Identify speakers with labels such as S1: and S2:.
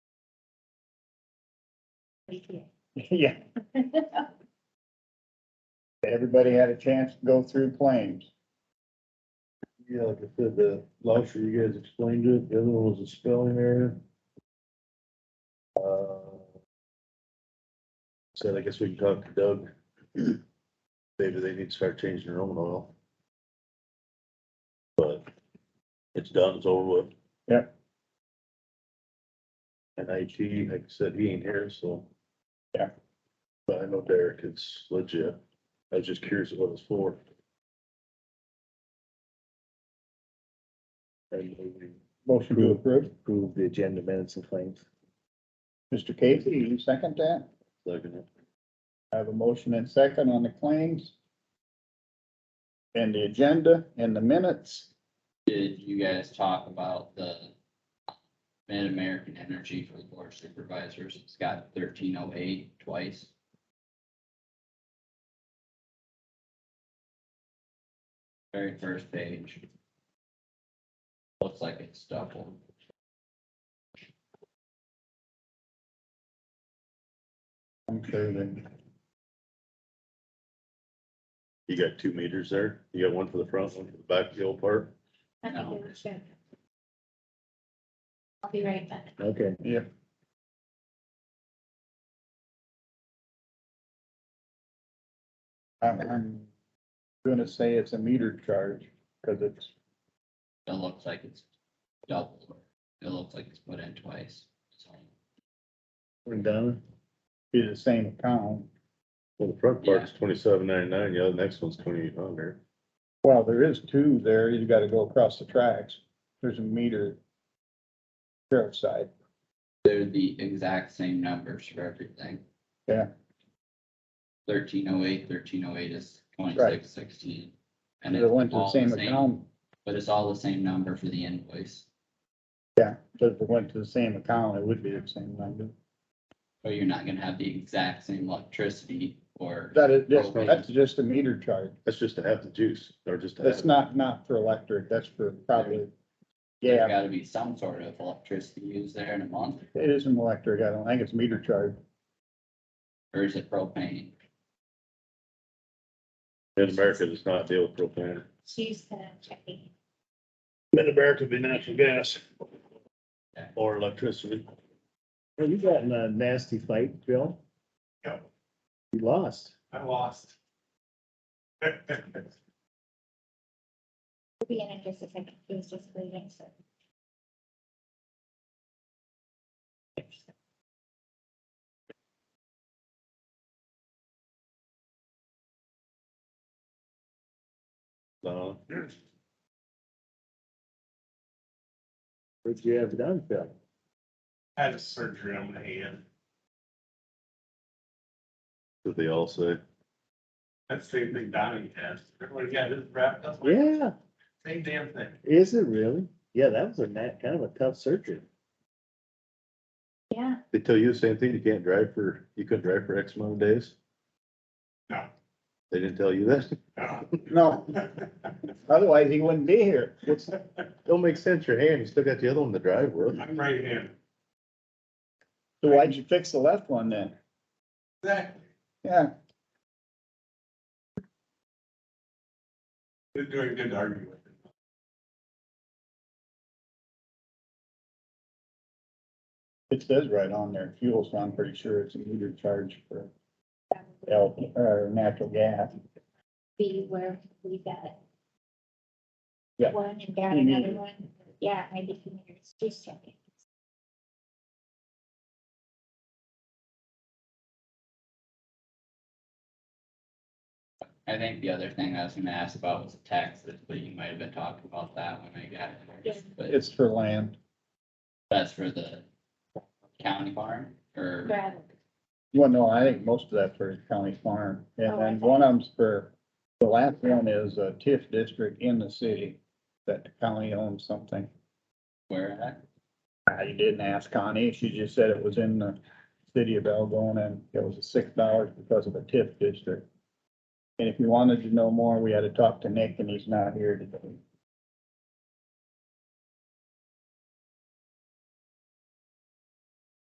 S1: Yeah. Everybody had a chance to go through claims.
S2: Yeah, like I said, the last year you guys explained it, the other one was a spelling error. Uh, Said, I guess we can talk to Doug. Maybe they need to start changing their own oil. But it's done, it's over with.
S1: Yep.
S2: And IT, like I said, he ain't here, so.
S1: Yeah.
S2: But I know Derek, it's legit. I was just curious what it's for. And we
S1: Motion to approve.
S3: approve the agenda minutes and claims.
S1: Mr. Casey, you second that?
S2: Second it.
S1: I have a motion and second on the claims. And the agenda and the minutes.
S4: Did you guys talk about the Mid-American Energy for the board of supervisors? It's got thirteen oh eight twice. Very first page. Looks like it's double.
S1: I'm sure that
S2: You got two meters there. You got one for the front, one for the back, the old part.
S5: I think
S4: No.
S5: it was good. I'll be right back.
S3: Okay.
S1: I'm, I'm gonna say it's a meter charge, cause it's,
S4: It looks like it's double. It looks like it's put in twice. So,
S3: We're done.
S1: be the same account.
S2: Well, the front part's twenty-seven ninety-nine, the other next one's twenty-eight hundred.
S1: Well, there is two there, you gotta go across the tracks, there's a meter. Sheriff's side,
S4: They're the exact same numbers for everything.
S1: Yeah.
S4: Thirteen oh eight, thirteen oh eight is twenty-six sixteen. And
S1: they
S4: it's
S1: went to the
S4: all the
S1: same
S4: same,
S1: account,
S4: but it's all the same number for the invoice.
S1: so if it went to the same account, it would be the same number.
S4: So you're not gonna have the exact same electricity or,
S1: That is, just-
S4: Okay.
S1: that's just a meter charge,
S2: That's just to have the juice, or just to
S1: that's
S2: have.
S1: not, not for electric, that's for probably.
S4: there's
S1: Yeah,
S4: gotta be some sort of electricity used there in a month,
S1: it is an electric, I don't think it's meter charge,
S4: or is it propane?
S2: In America, does not deal with propane.
S5: She's gonna check it.
S2: Mid-America would be natural gas.
S4: Yeah.
S2: Or electricity.
S3: Well, you got in a nasty fight, Bill?
S6: Yeah.
S3: You lost.
S6: I lost.
S5: We'll be in in just a second. He's just leaving, so.
S2: No,
S3: What'd you have done, Phil?
S6: Had a surgery on my hand.
S2: that they all say.
S6: That's the same thing Donnie had. Everybody got his wrapped up. like,
S3: Yeah,
S6: Same damn thing.
S3: is it really? Yeah, that was a nat, kind of a tough surgery.
S5: Yeah,
S2: They tell you the same thing, you can't drive for, you couldn't drive for X amount of days?
S6: No.
S2: They didn't tell you that?
S6: No.
S1: no, otherwise he wouldn't be here.
S2: What's, don't make sense, your hand, you still got the other one to drive with.
S6: I'm right handed.
S1: So why'd you fix the left one then?
S6: Exactly.
S1: Yeah,
S6: They're doing good to argue with.
S1: it says right on there, fuel, so I'm pretty sure it's a meter charge for L, or natural gas.
S5: be where we got it.
S1: Yeah.
S5: One and down
S1: You mean-
S5: another one. Yeah, maybe two minutes, just checking.
S4: I think the other thing I was gonna ask about was taxes, but you might have been talking about that when I got
S5: Yeah.
S4: here. But
S1: It's for land.
S4: that's for the county farm or?
S5: Gravel.
S1: Well, no, I think most of that's for county farm.
S5: Oh,
S1: And
S5: I
S1: then
S5: see.
S1: one of them's for, the last one is a TIF district in the city that the county owns something.
S4: Where at?
S1: I didn't ask Connie. She just said it was in the city of Algonah and it was six dollars because of a TIF district. And if you wanted to know more, we had to talk to Nick and he's not here today.